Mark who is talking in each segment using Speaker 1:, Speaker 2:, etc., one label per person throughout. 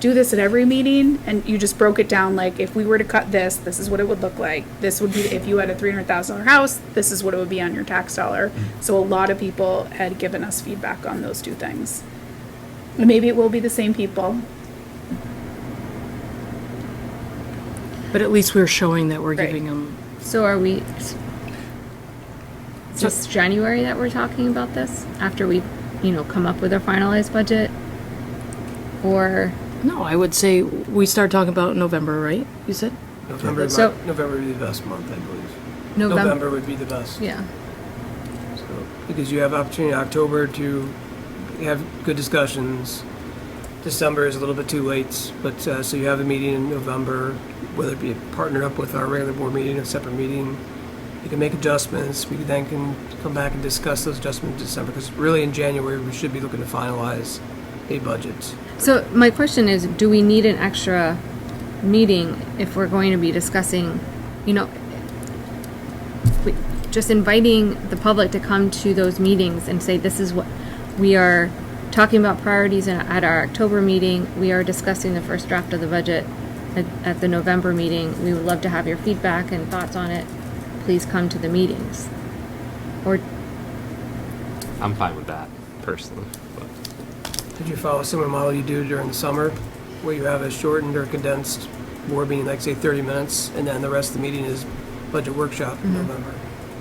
Speaker 1: do this at every meeting, and you just broke it down, like, if we were to cut this, this is what it would look like. This would be, if you had a three hundred thousand dollar house, this is what it would be on your tax dollar. So a lot of people had given us feedback on those two things. And Maybe it will be the same people,
Speaker 2: But at least we're showing that we're
Speaker 1: Right.
Speaker 2: giving them,
Speaker 3: So are we? It's just January that we're talking about this after we, you know, come up with our finalized budget, or
Speaker 2: no, I would say we start talking about November, right? You said?
Speaker 4: November,
Speaker 3: Yeah. So-
Speaker 4: mon- November would be the best month, I believe.
Speaker 3: November?
Speaker 4: November would be the best.
Speaker 3: Yeah.
Speaker 4: So, Because you have opportunity in October to have good discussions. December is a little bit too late, but, uh, so you have a meeting in November, whether it be partnered up with our regular board meeting, a separate meeting. You can make adjustments, we then can come back and discuss those adjustments in December, because really in January, we should be looking to finalize a budget.
Speaker 3: So my question is, do we need an extra meeting if we're going to be discussing, you know, we- just inviting the public to come to those meetings and say, this is what, we are talking about priorities in- at our October meeting, we are discussing the first draft of the budget at, at the November meeting, we would love to have your feedback and thoughts on it, please come to the meetings. Or,
Speaker 5: I'm fine with that personally. But
Speaker 4: Did you follow a similar model you do during the summer, where you have a shortened or condensed board meeting, like say 30 minutes, and then the rest of the meeting is budget workshop in November?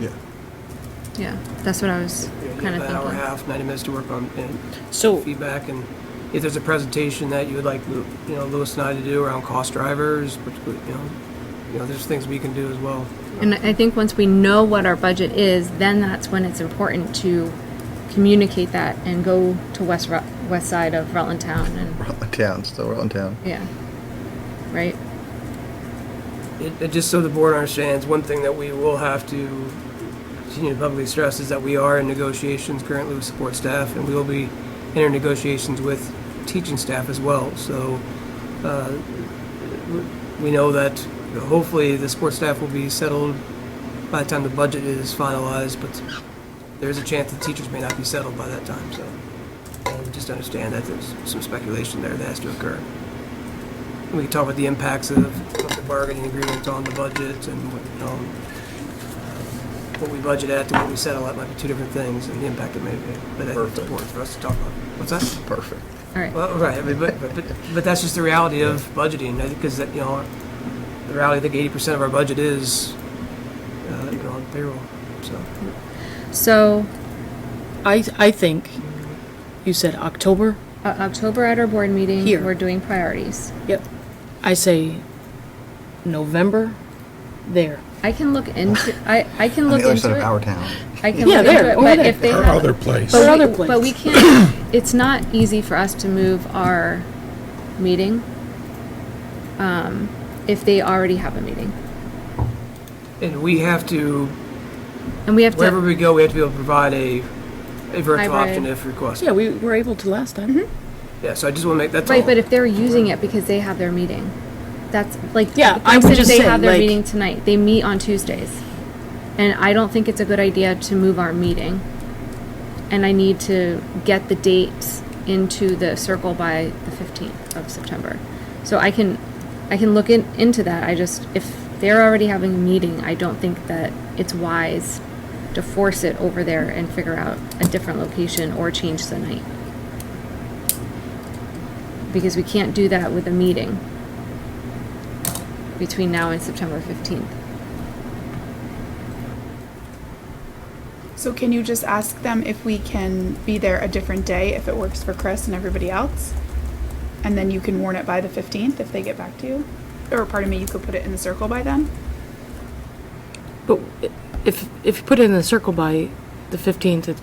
Speaker 6: Yeah.
Speaker 3: yeah, that's what I was
Speaker 4: You know, you
Speaker 3: kind
Speaker 4: have
Speaker 3: of
Speaker 4: An hour and a
Speaker 3: thinking.
Speaker 4: half, 90 minutes to work on and
Speaker 2: So,
Speaker 4: feedback, and if there's a presentation that you would like, Lu- you know, Lewis and I to do around cost drivers, which, would, you know, you know, there's things we can do as well.
Speaker 3: And I think once we know what our budget is, then that's when it's important to communicate that and go to west Ru- west side of Rutland Town and
Speaker 6: Rutland Town, still Rutland Town.
Speaker 3: yeah, right.
Speaker 4: It, it- just so the board understands, one thing that we will have to continue to publicly stress is that we are in negotiations currently with support staff, and we will be entering negotiations with teaching staff as well. So uh, we know that hopefully the support staff will be settled by the time the budget is finalized, but there is a chance the teachers may not be settled by that time, so uh, just understand that there's some speculation there that has to occur. We can talk about the impacts of of the bargaining agreements on the budget and what, um, what we budget at to what we settle at might be two different things and the impact it may be. But I think it's
Speaker 6: Perfect.
Speaker 4: important for us to talk about. What's that?
Speaker 6: Perfect.
Speaker 3: All right.
Speaker 4: Well, right, I mean, but, but, but that's just the reality of budgeting, because that, you know, the reality, I think eighty percent of our budget is, uh, you know, on payroll, so.
Speaker 3: So
Speaker 2: I, I think, you said October?
Speaker 3: uh, October at our board meeting,
Speaker 2: Here.
Speaker 3: we're doing priorities.
Speaker 2: Yep. I say November, there.
Speaker 3: I can look into. I I can
Speaker 6: On
Speaker 3: look
Speaker 6: the other
Speaker 3: into
Speaker 6: side of
Speaker 3: it.
Speaker 6: our town.
Speaker 3: I can
Speaker 2: Yeah,
Speaker 3: look
Speaker 2: there,
Speaker 3: into it,
Speaker 2: over
Speaker 3: but
Speaker 2: there.
Speaker 3: if they
Speaker 7: Or
Speaker 3: have,
Speaker 7: other place.
Speaker 2: Or
Speaker 3: But
Speaker 2: other
Speaker 3: we-
Speaker 2: place.
Speaker 3: But we can't, it's not easy for us to move our meeting um, if they already have a meeting.
Speaker 4: And we have to,
Speaker 3: And we have to.
Speaker 4: wherever we go, we have to be able to provide a, a virtual
Speaker 3: Hybrid.
Speaker 4: option if requested.
Speaker 2: Yeah, we were able to last
Speaker 3: Mm-hmm.
Speaker 2: time.
Speaker 4: Yeah, so I just wanna make, that's all.
Speaker 3: Right, but if they're using it because they have their meeting, that's like
Speaker 2: Yeah,
Speaker 3: like
Speaker 2: I would
Speaker 3: said,
Speaker 2: just
Speaker 3: they
Speaker 2: say,
Speaker 3: have their
Speaker 2: like-
Speaker 3: meeting tonight. They meet on Tuesdays, and I don't think it's a good idea to move our meeting. And I need to get the dates into the circle by the fifteenth of September, so I can I can look in, into that. I just if they're already having a meeting, I don't think that it's wise to force it over there and figure out a different location or change the night because we can't do that with a meeting between now and September 15th.
Speaker 1: So can you just ask them if we can be there a different day if it works for Chris and everybody else? And then you can warn it by the 15th if they get back to you? Or pardon me, you could put it in the circle by then?
Speaker 2: But if, if you put it in the circle by the 15th, it-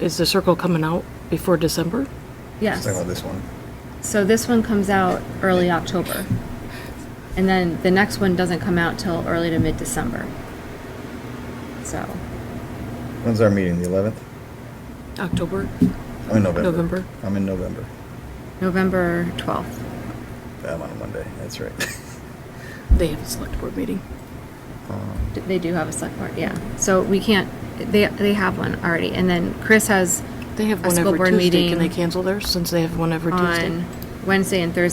Speaker 2: is the circle coming out before December?
Speaker 3: Yes.
Speaker 6: Let's talk about this one.
Speaker 3: So this one comes out early October. And then the next one doesn't come out till early to mid December. So,
Speaker 6: When's our meeting? The 11th?
Speaker 2: October?
Speaker 6: I'm in November.
Speaker 2: November.
Speaker 6: I'm in November.
Speaker 3: November 12th.
Speaker 6: I'm on a Monday. That's right.
Speaker 2: They have a select board meeting.
Speaker 6: Um,
Speaker 3: D- They do have a select board, yeah. So we can't, they, they have one already. And then Chris has
Speaker 2: They have
Speaker 3: a
Speaker 2: one
Speaker 3: school
Speaker 2: every
Speaker 3: board
Speaker 2: Tuesday. Can they
Speaker 3: meeting
Speaker 2: cancel theirs since they have one every Tuesday?
Speaker 3: on Wednesday and Thursday